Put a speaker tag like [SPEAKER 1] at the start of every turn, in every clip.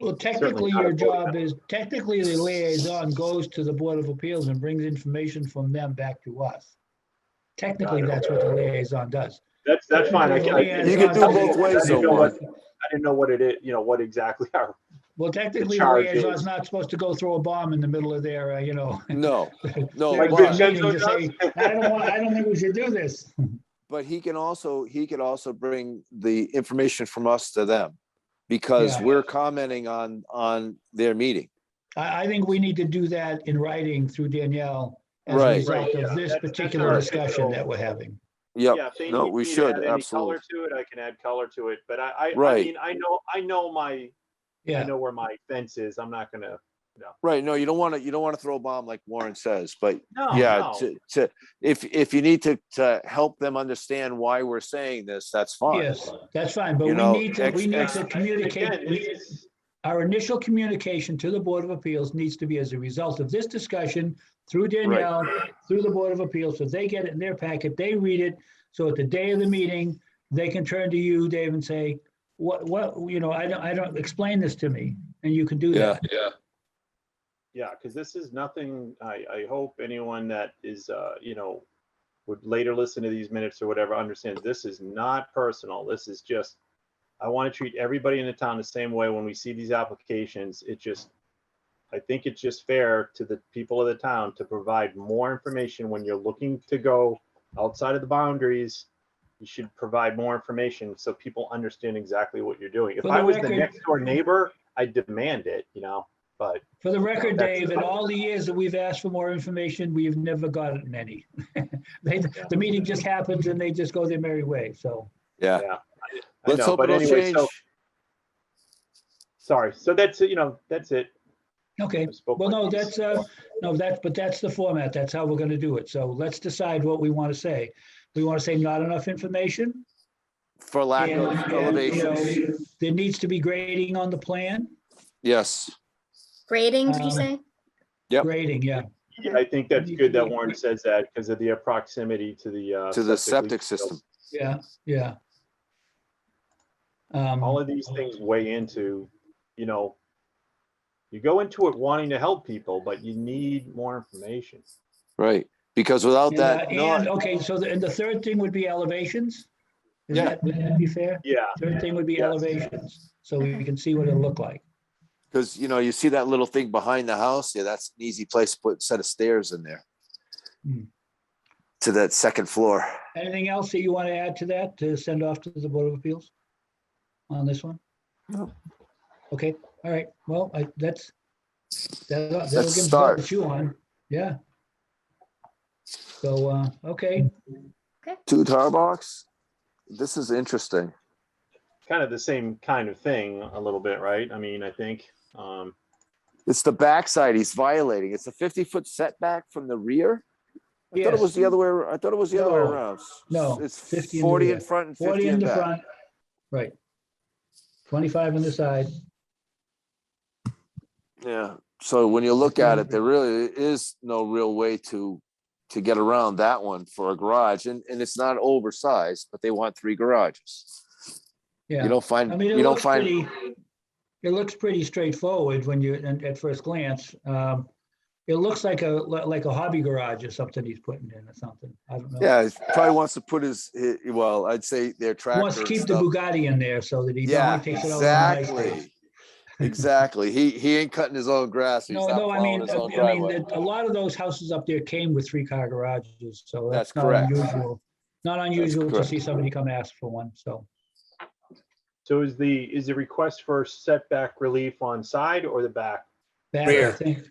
[SPEAKER 1] Well,
[SPEAKER 2] Certainly
[SPEAKER 1] technically,
[SPEAKER 2] not
[SPEAKER 1] your
[SPEAKER 2] a vote.
[SPEAKER 1] job is, technically, the liaison goes to the Board of Appeals and brings information from them back to us. Technically,
[SPEAKER 2] Got it.
[SPEAKER 1] that's what the liaison does.
[SPEAKER 2] That's, that's fine. I can, I can.
[SPEAKER 3] You can do both ways
[SPEAKER 2] I didn't
[SPEAKER 3] though,
[SPEAKER 2] know what-
[SPEAKER 3] Juan.
[SPEAKER 2] I didn't know what it is, you know, what exactly our,
[SPEAKER 1] Well, technically, the
[SPEAKER 2] charge
[SPEAKER 1] liaison's
[SPEAKER 2] is-
[SPEAKER 1] not supposed to go throw a bomb in the middle of their, uh, you know.
[SPEAKER 3] No, no,
[SPEAKER 1] their
[SPEAKER 2] Like
[SPEAKER 3] but,
[SPEAKER 2] Vincenzo
[SPEAKER 1] meeting to say, I don't want, I don't think we should do this.
[SPEAKER 3] but he can also, he could also bring the information from us to them. Because
[SPEAKER 1] Yeah.
[SPEAKER 3] we're commenting on, on their meeting.
[SPEAKER 1] I, I think we need to do that in writing through Danielle as a
[SPEAKER 3] Right.
[SPEAKER 1] result
[SPEAKER 2] Right, yeah.
[SPEAKER 1] of this
[SPEAKER 2] That's- that's
[SPEAKER 1] particular
[SPEAKER 2] our
[SPEAKER 1] discussion
[SPEAKER 2] control.
[SPEAKER 1] that we're having.
[SPEAKER 3] Yep,
[SPEAKER 2] yeah. if they
[SPEAKER 3] no,
[SPEAKER 2] need
[SPEAKER 3] we
[SPEAKER 2] me to
[SPEAKER 3] should,
[SPEAKER 2] add any
[SPEAKER 3] absolutely.
[SPEAKER 2] Color to it, I can add color to it, but I, I, I
[SPEAKER 3] Right.
[SPEAKER 2] mean, I know, I know my, I
[SPEAKER 1] Yeah,
[SPEAKER 2] know where my fence is. I'm not gonna,
[SPEAKER 3] right. No, you don't want to, you don't want to throw a bomb like Warren says, but
[SPEAKER 2] no,
[SPEAKER 3] yeah,
[SPEAKER 2] no.
[SPEAKER 3] to, to, if, if you need to, to help them understand why we're saying this, that's fine.
[SPEAKER 1] yes, that's fine, but
[SPEAKER 3] You
[SPEAKER 1] we
[SPEAKER 3] know,
[SPEAKER 1] need to,
[SPEAKER 3] ex-
[SPEAKER 1] we need
[SPEAKER 3] ex-
[SPEAKER 1] to
[SPEAKER 2] Again,
[SPEAKER 1] communicate. we-
[SPEAKER 2] it's-
[SPEAKER 1] Our initial communication to the Board of Appeals needs to be as a result of this discussion through Danielle, through the Board of Appeals, so they get it in their packet, they read it. So at the day of the meeting, they can turn to you, Dave, and say, what, what, you know, I don't, I don't, explain this to me, and you can do
[SPEAKER 3] Yeah.
[SPEAKER 1] that.
[SPEAKER 2] Yeah, because this is nothing, I, I hope anyone that is, uh, you know, would later listen to these minutes or whatever, understands this is not personal. This is just, I want to treat everybody in the town the same way when we see these applications. It just, I think it's just fair to the people of the town to provide more information when you're looking to go outside of the boundaries. You should provide more information so people understand exactly what you're doing. If
[SPEAKER 1] For the
[SPEAKER 2] I was the
[SPEAKER 1] record-
[SPEAKER 2] next door neighbor, I'd demand it, you know, but
[SPEAKER 1] For the record,
[SPEAKER 2] That's-
[SPEAKER 1] Dave, in all the years that we've asked for more information, we've never gotten any. They, the meeting just happens and they just go their merry way, so.
[SPEAKER 3] Yeah.
[SPEAKER 2] I
[SPEAKER 3] Let's
[SPEAKER 2] know,
[SPEAKER 3] hope
[SPEAKER 2] but
[SPEAKER 3] it'll
[SPEAKER 2] anyway,
[SPEAKER 3] change.
[SPEAKER 2] so- Sorry, so that's, it. you know, that's it.
[SPEAKER 1] Okay,
[SPEAKER 2] I spoke
[SPEAKER 1] well,
[SPEAKER 2] my
[SPEAKER 1] no,
[SPEAKER 2] piece.
[SPEAKER 1] that's, uh, no, that's, but that's the format. That's how we're gonna do it. So let's decide what we want to say. We want to say not enough information.
[SPEAKER 3] For lack
[SPEAKER 1] and-
[SPEAKER 3] of
[SPEAKER 1] and, you
[SPEAKER 3] elevations,
[SPEAKER 1] know, There needs to be grading on the plan,
[SPEAKER 3] yes.
[SPEAKER 4] Grading, did
[SPEAKER 1] Um,
[SPEAKER 4] you say?
[SPEAKER 3] Yep.
[SPEAKER 1] grading, yeah.
[SPEAKER 2] Yeah, I think that's good that Warren says that because of the proximity to the. uh,
[SPEAKER 3] To the
[SPEAKER 2] leak field.
[SPEAKER 3] septic system.
[SPEAKER 1] Yeah, yeah. Um,
[SPEAKER 2] All of these things weigh into, you know, you go into it wanting to help people, but you need more information.
[SPEAKER 3] Right, because without
[SPEAKER 1] and, uh,
[SPEAKER 3] that,
[SPEAKER 1] And,
[SPEAKER 3] no,
[SPEAKER 1] okay, so the, and the third thing would be elevations. Is
[SPEAKER 3] Yeah.
[SPEAKER 1] that, would that be fair?
[SPEAKER 2] Yeah,
[SPEAKER 1] Third thing would be
[SPEAKER 2] Yes.
[SPEAKER 1] elevations, so we can see what it'll look like.
[SPEAKER 3] because you know, you see that little thing behind the house, yeah, that's an easy place to put set of stairs in there.
[SPEAKER 1] Hmm.
[SPEAKER 3] To that second floor.
[SPEAKER 1] Anything else that you want to add to that, to send off to the Board of Appeals? On this one?
[SPEAKER 3] No.
[SPEAKER 1] Okay, all right, well, I, that's. that- That'll give
[SPEAKER 3] Let's
[SPEAKER 1] us
[SPEAKER 3] start.
[SPEAKER 1] what you on, yeah. So, uh, okay,
[SPEAKER 3] Two tar box? This is interesting.
[SPEAKER 2] kind of the same kind of thing a little bit, right? I mean, I think, um,
[SPEAKER 3] It's the backside he's violating. It's a fifty foot setback from the rear? I thought it
[SPEAKER 1] Yes.
[SPEAKER 3] was the other way, ar- I thought it was the other way
[SPEAKER 1] No,
[SPEAKER 3] around. S-
[SPEAKER 1] no,
[SPEAKER 3] It's
[SPEAKER 1] 50 in the
[SPEAKER 3] forty
[SPEAKER 1] rear.
[SPEAKER 3] in front and
[SPEAKER 1] forty
[SPEAKER 3] fifty
[SPEAKER 1] in
[SPEAKER 3] in
[SPEAKER 1] the
[SPEAKER 3] back.
[SPEAKER 1] front, right. Twenty-five on the side,
[SPEAKER 3] Yeah, so when you look at it,
[SPEAKER 1] Mm-hmm.
[SPEAKER 3] there really is no real way to, to get around that one for a garage, and, and it's not oversized, but they want three garages.
[SPEAKER 1] yeah.
[SPEAKER 3] You don't
[SPEAKER 1] I
[SPEAKER 3] find,
[SPEAKER 1] mean, it
[SPEAKER 3] you don't
[SPEAKER 1] looks
[SPEAKER 3] find,
[SPEAKER 1] pretty, it looks pretty straightforward when you, and at first glance. Um, It looks like a, like a hobby garage or something he's putting in or something. I don't know.
[SPEAKER 3] yeah, he probably wants to put his, hi- well, I'd say their
[SPEAKER 1] He
[SPEAKER 3] tractor
[SPEAKER 1] Wants to
[SPEAKER 3] and
[SPEAKER 1] keep the
[SPEAKER 3] stuff.
[SPEAKER 1] Bugatti in there so that he
[SPEAKER 3] Yeah,
[SPEAKER 1] only takes it over. on nice days.
[SPEAKER 3] exactly. Exactly. He, he ain't cutting his own grass. He's
[SPEAKER 1] No,
[SPEAKER 3] not
[SPEAKER 1] no, I
[SPEAKER 3] plowing
[SPEAKER 1] mean, uh,
[SPEAKER 3] his own
[SPEAKER 1] I mean,
[SPEAKER 3] driveway.
[SPEAKER 1] that- a lot of those houses up there came with three-car garages, so that's
[SPEAKER 3] That's
[SPEAKER 1] not
[SPEAKER 3] correct.
[SPEAKER 1] unusual. Not unusual to
[SPEAKER 3] correct.
[SPEAKER 1] see somebody come ask for one, so.
[SPEAKER 2] so is the, is the request for setback relief on side or the back?
[SPEAKER 1] that, I
[SPEAKER 3] Rear.
[SPEAKER 1] think-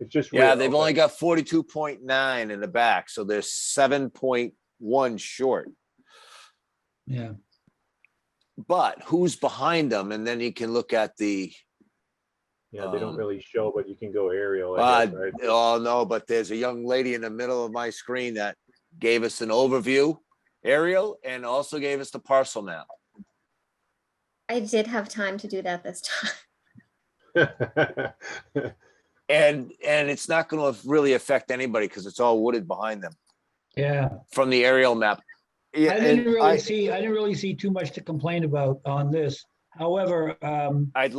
[SPEAKER 2] It's just.
[SPEAKER 3] Yeah,
[SPEAKER 2] rear,
[SPEAKER 3] they've
[SPEAKER 2] okay.
[SPEAKER 3] only got forty-two point nine in the back, so they're seven point one short.
[SPEAKER 1] Yeah,
[SPEAKER 3] But who's behind them? And then you can look at the,
[SPEAKER 2] Yeah, they don't
[SPEAKER 3] Um,
[SPEAKER 2] really show, but you can go aerial, I
[SPEAKER 3] uh,
[SPEAKER 2] guess, right?
[SPEAKER 3] oh no, but there's a young lady in the middle of my screen that gave us an overview aerial and also gave us the parcel map.
[SPEAKER 4] I did have time to do that this time.
[SPEAKER 3] And, and it's not gonna really affect anybody because it's all wooded behind them
[SPEAKER 1] yeah.
[SPEAKER 3] from the aerial map. Yeah,
[SPEAKER 1] I didn't
[SPEAKER 3] and
[SPEAKER 1] really
[SPEAKER 3] I,
[SPEAKER 1] see, I didn't really see too much to complain about on this. However, um,
[SPEAKER 3] I'd